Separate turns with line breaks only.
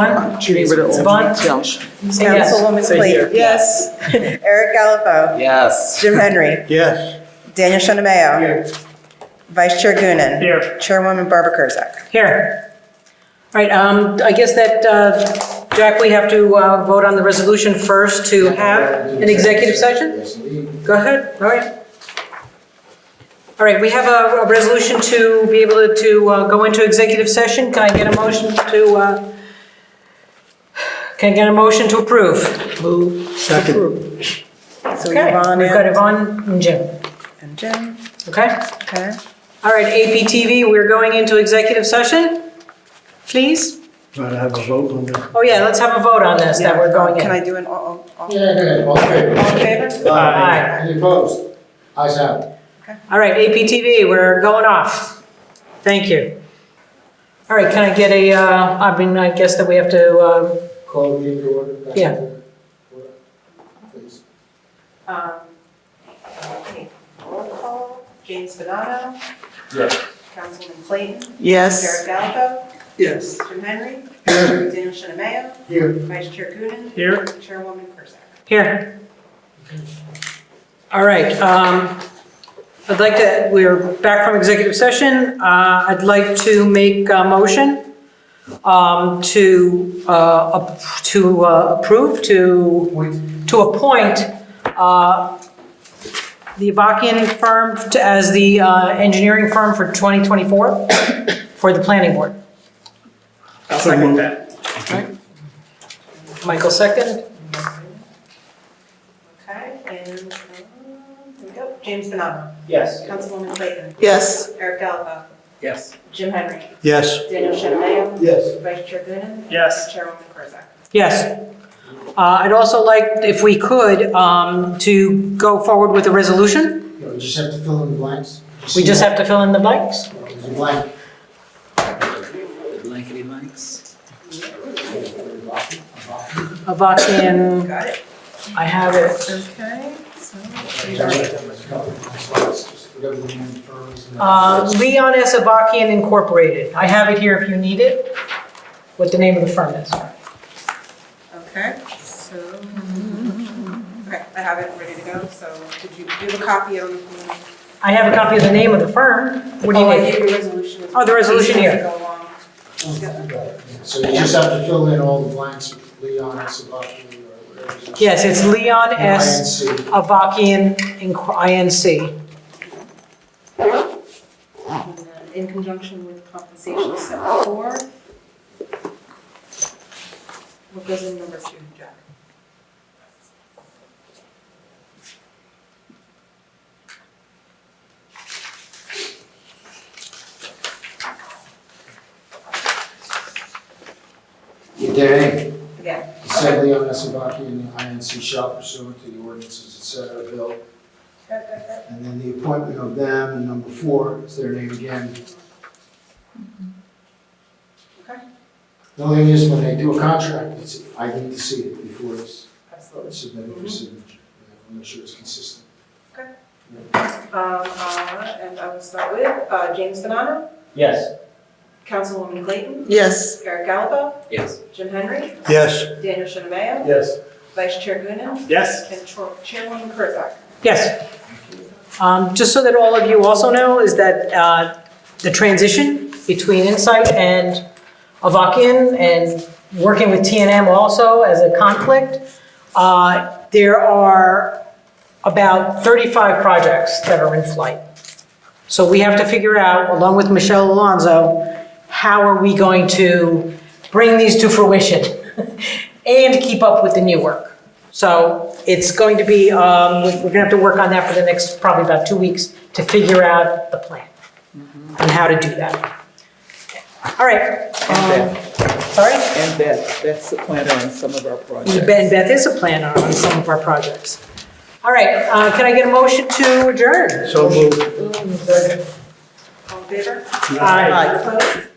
Bunt,
Judy Riddle.
Bunt,
Belsh.
Councilwoman
Say here.
Clayton. Yes. Eric Gallipo.
Yes.
Jim Henry.
Yes.
Daniel Shinameo. Vice Chair Gunnan.
Here.
Chairwoman Barbara Kurzak.
Here. All right, um, I guess that, uh, Jack, we have to uh, vote on the resolution first to have an executive session? Go ahead, all right. All right, we have a a resolution to be able to- to uh, go into executive session. Can I get a motion to, uh, can I get a motion to approve?
Second.
So
Okay,
Yvonne
We've got
and-
Yvonne and Jim,
and Jim.
okay?
Okay.
All right, APTV, we're going into executive session, please?
Gotta have a vote on that.
Oh, yeah, let's have a vote on this, that we're going in.
Can I do an all, all- all
Yeah, yeah, all in favor?
all in favor?
Aye.
Any opposed? Ayes have it.
All right, APTV, we're going off. Thank you. All right, can I get a, uh, I mean, I guess that we have to, uh,
Call the meeting to order. Back
Yeah.
to order, Please.
Um, Roll call, James Bonanno.
Yes.
Councilman Clayton.
Yes.
Eric Gallipo.
Yes.
Jim Henry. Daniel Shinameo.
Here.
Vice Chair Gunnan.
here.
Chairwoman Kurzak.
here. All right, um, I'd like to, we're back from executive session. Uh, I'd like to make a motion um, to, uh, up- to uh, approve, to
Point.
to appoint uh, the Avakian firm to- as the uh, engineering firm for 2024 for the planning board.
I'll second that.
Michael, second?
Okay, and, um, here we go. James Bonanno.
Yes.
Councilwoman Clayton.
Yes.
Eric Gallipo.
Yes.
Jim Henry.
Yes.
Daniel Shinameo.
Yes.
Vice Chair Gunnan.
Yes.
Chairwoman Kurzak.
Yes. Uh, I'd also like, if we could, um, to go forward with a resolution.
You know, You just have to fill in the blanks.
We just have to fill in the blanks.
There's a blank.
Blankety blanks.
Avakian,
Got it.
I have it.
Okay, so.
Whatever the name firms and-
Uh, Leon S. Avakian Incorporated. I have it here if you need it, what the name of the firm is.
Okay, so, okay, I have it ready to go, so did you, do you have a copy of?
I have a copy of the name of the firm. What do you
Oh, I
need?
gave you a resolution.
Oh, the resolution here.
Go along.
So you just have to fill in all the blanks, Leon, Sabaki, or whatever. it is.
Yes, it's Leon S.
INC.
Avakian Inc- Inc.
And then In conjunction with compensation set four. What goes in number two, Jack?
Your day.
Yeah.
Assembly on Esabaki and the INC shall pursuant to the ordinances, et cetera, bill. And then the appointment of them, and number four is their name again.
Okay.
The only thing is, when they do a contract, it's, I need to see it before it's
Absolutely.
submitted for signature. I'm not sure it's consistent.
Um, uh, and I will start with, uh, James Banana,
Yes.
Councilwoman Clayton,
Yes.
Eric Gallipo,
Yes.
Jim Henry,
Yes.
Daniel Shinameo,
Yes.
Vice Chair Gunnin,
Yes.
And Chair- Chairwoman Kurzak.
Yes. Um, Just so that all of you also know, is that uh, the transition between Insight and Avakian and working with TNM also as a conflict, uh, there are about 35 projects that are in flight. So we have to figure out, along with Michelle Alonso, how are we going to bring these to fruition and keep up with the new work? So it's going to be, um, we're gonna have to work on that for the next, probably about two weeks, to figure out the plan and how to do that. All right. um, Sorry?
And that, that's the planner on some of our projects.
Ben Beth is a planner on some of our projects. All right, uh, can I get a motion to adjourn?
So moved.
All in favor?
Aye.
Opposed?